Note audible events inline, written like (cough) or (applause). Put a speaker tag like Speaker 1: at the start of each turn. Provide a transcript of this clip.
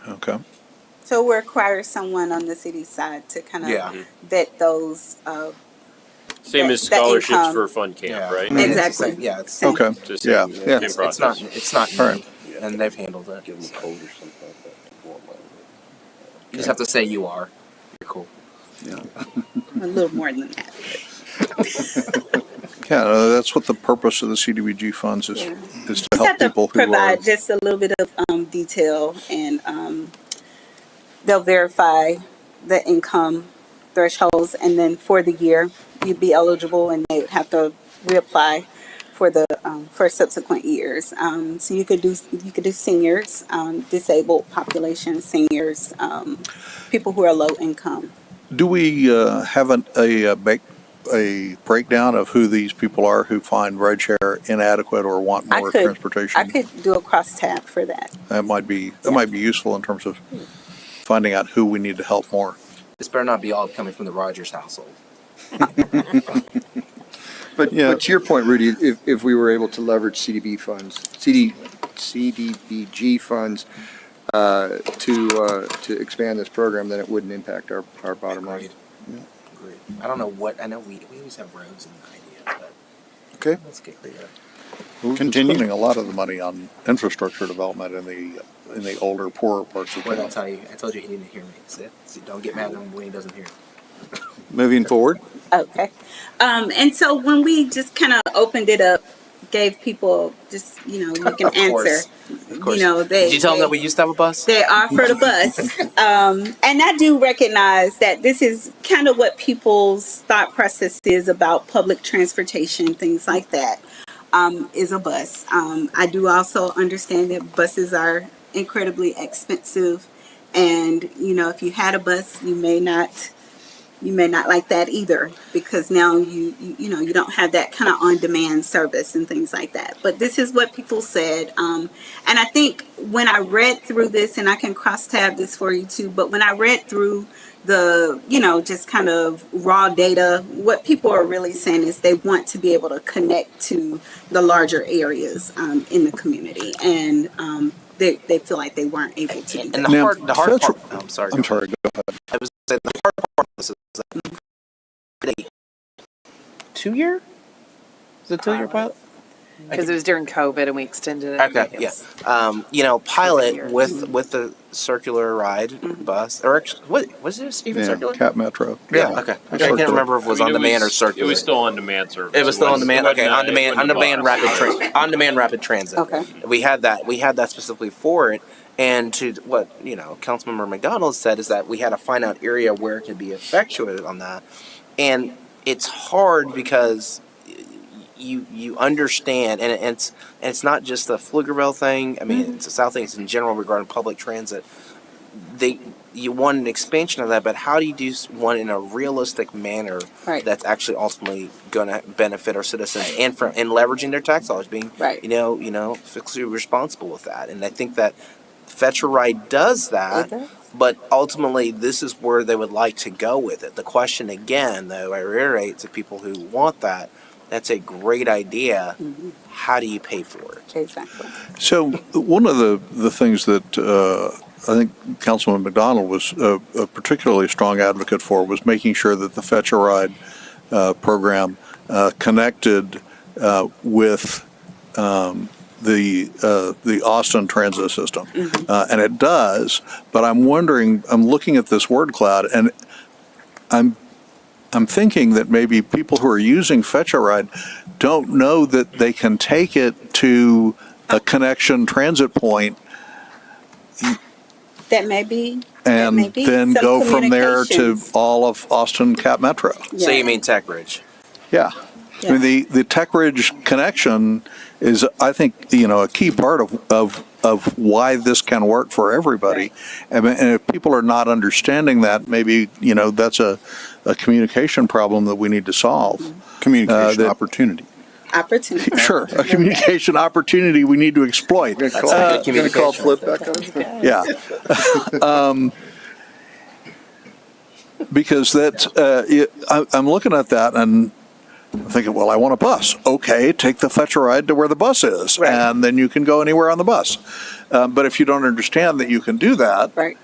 Speaker 1: Okay.
Speaker 2: So we require someone on the city side to kind of
Speaker 1: Yeah.
Speaker 2: vet those. Uh,
Speaker 3: Same
Speaker 2: The-
Speaker 3: as
Speaker 2: the
Speaker 3: scholarships
Speaker 2: income.
Speaker 3: for fun camp, right?
Speaker 2: Mhm.
Speaker 4: It's the same-
Speaker 2: Exactly.
Speaker 4: Yeah, it's,
Speaker 2: Same.
Speaker 1: Okay.
Speaker 3: Just-
Speaker 1: Yeah,
Speaker 3: Same
Speaker 1: yeah.
Speaker 4: it's, it's not, it's not
Speaker 1: All right.
Speaker 4: me, and they've handled it.
Speaker 5: Give
Speaker 4: You
Speaker 5: them a code or something like that. to go along with
Speaker 4: just have to say you are. You're cool.
Speaker 2: a little more than that.
Speaker 1: Yeah, uh, that's what the purpose of the CDBG funds is,
Speaker 2: Yeah.
Speaker 1: is to
Speaker 2: Just
Speaker 1: help
Speaker 2: have to
Speaker 1: people who are.
Speaker 2: provide just a little bit of um, detail, and um, they'll verify the income thresholds, and then for the year you'd be eligible, and they would have to reapply for the um, for subsequent years. Um, so you could do you could do seniors, um, disabled population, seniors, um, people who are low income.
Speaker 1: Do we uh, have an, a, uh, ba- a breakdown of who these people are who find rideshare inadequate or want
Speaker 2: I
Speaker 1: more
Speaker 2: could-
Speaker 1: transportation?
Speaker 2: I could do a cross tab for that.
Speaker 1: That might be, that might be useful in terms of finding out who we need to help more.
Speaker 4: This better not be all coming from the Rogers household.
Speaker 6: But,
Speaker 1: Yeah.
Speaker 6: but to your point, Rudy, if, if we were able to leverage CDB funds, CD, CDBG funds, uh, to, uh, to expand this program, then it wouldn't impact our, our bottom line.
Speaker 4: Agreed. Agreed. I don't know what, I know we, we always have roads in the idea,
Speaker 6: Okay.
Speaker 4: but let's get clear.
Speaker 1: We've been
Speaker 6: Continue.
Speaker 1: Spending a lot of the money on infrastructure development in the, in the older, poorer parts of
Speaker 4: What did I
Speaker 1: town.
Speaker 4: tell you? I told you he didn't hear me. See? See, don't get mad at him when he doesn't hear.
Speaker 6: Moving forward.
Speaker 2: Okay. Um, and so when we just kind of opened it up, gave people just, you know, you
Speaker 4: (laughs)
Speaker 2: can
Speaker 4: Of course.
Speaker 2: answer.
Speaker 4: Of course.
Speaker 2: You know, they,
Speaker 4: Did you tell him
Speaker 2: they,
Speaker 4: that we used to have a bus?
Speaker 2: they offered a bus.
Speaker 4: (laughs)
Speaker 2: um, and I do recognize that this is kind of what people's thought process is about public transportation, things like that, um, is a bus. Um, I do also understand that buses are incredibly expensive. And, you know, if you had a bus, you may not you may not like that either because now you you, you know you don't have that kind of on demand service and things like that but this is what people said um, and i think when i read through this and i can cross tab this for you too but when i read through the you know just kind of raw data what people are really saying is they want to be able to connect to the larger areas um, in the community and um, they, they feel like they weren't able to do
Speaker 4: And
Speaker 2: that
Speaker 4: the
Speaker 1: Now,
Speaker 4: hard, the hard
Speaker 1: that's-
Speaker 4: part. I'm sorry.
Speaker 1: I'm sorry, go ahead.
Speaker 4: I was saying the hard part of this is that they- two year. Is it two year pilot?
Speaker 7: Because it was during COVID and we extended it.
Speaker 4: Okay, yeah. Um, you know,
Speaker 7: year.
Speaker 4: pilot with with the circular ride bus or actually, what was it even
Speaker 1: Yeah,
Speaker 4: circular?
Speaker 1: Cap Metro.
Speaker 4: Yeah. Okay. I can't remember if it was
Speaker 3: I mean,
Speaker 4: on demand
Speaker 3: was-
Speaker 4: or circular.
Speaker 3: It was still on demand service.
Speaker 4: It was still on
Speaker 3: wasn't-
Speaker 4: demand.
Speaker 3: it
Speaker 4: Okay,
Speaker 3: wasn't
Speaker 4: on
Speaker 3: a-
Speaker 4: demand,
Speaker 3: it
Speaker 4: on
Speaker 3: wasn't a
Speaker 4: demand
Speaker 3: box.
Speaker 4: rapid transit, on demand rapid transit.
Speaker 2: Okay.
Speaker 4: We had that. We had that specifically for it. And to what you know, Councilmember McDonald said is that we had to find out area where it could be effectuated on that, and it's hard because you you understand, and it's and it's not just the Pflugerville thing. I mean, it's the South thing. It's in general regarding public transit. They you want an expansion of that, but how do you do s- one in a realistic manner
Speaker 2: Right.
Speaker 4: that's actually ultimately going to benefit our citizens and from and leveraging their tax dollars, being
Speaker 2: Right.
Speaker 4: you know you know fiscally responsible with that. And I think that Fetcher Ride does that. But ultimately, this is where they would like to go with it. The question again, though, I reiterate to people who want that, that's a great idea.
Speaker 2: Mm-hmm.
Speaker 4: How do you pay for it?
Speaker 2: exactly
Speaker 1: So one of the, the things that uh, I think Councilman McDonald was a, a particularly strong advocate for was making sure that the Fetch a Ride uh, program uh, connected uh, with um, the uh, the Austin transit system, uh, and it does. But I'm wondering, I'm looking at this word cloud, and I'm thinking that maybe people who are using Fetch a Ride don't know that they can take it to a connection transit point
Speaker 2: that may be that may
Speaker 1: and
Speaker 2: be
Speaker 1: then
Speaker 2: some
Speaker 1: go from there to
Speaker 2: communications.
Speaker 1: all of Austin Cap Metro.
Speaker 2: Yeah.
Speaker 4: So you mean Tech Ridge?
Speaker 1: Yeah. I
Speaker 2: Yeah.
Speaker 1: mean, the, the Tech Ridge connection is, I think, you know, a key part of, of, of why this can work for everybody.
Speaker 2: Right.
Speaker 1: And, and if people are not understanding that, maybe, you know, that's a, a communication problem that we need to solve. Uh,
Speaker 6: Communication
Speaker 1: that-
Speaker 6: opportunity.
Speaker 2: opportunity
Speaker 1: Sure, a communication opportunity we need to exploit.
Speaker 6: Gonna call,
Speaker 4: Uh,
Speaker 6: gonna
Speaker 4: communication.
Speaker 6: call Flip back on?
Speaker 1: yeah. (laughs) Um, Because that, uh, it- I, I'm looking at that and I'm thinking, well, I want a bus. Okay, take the Fetcher ride to where the bus is,
Speaker 4: Right.
Speaker 1: and then you can go anywhere on the bus. Um, but if you don't understand that you can do that,
Speaker 2: Right.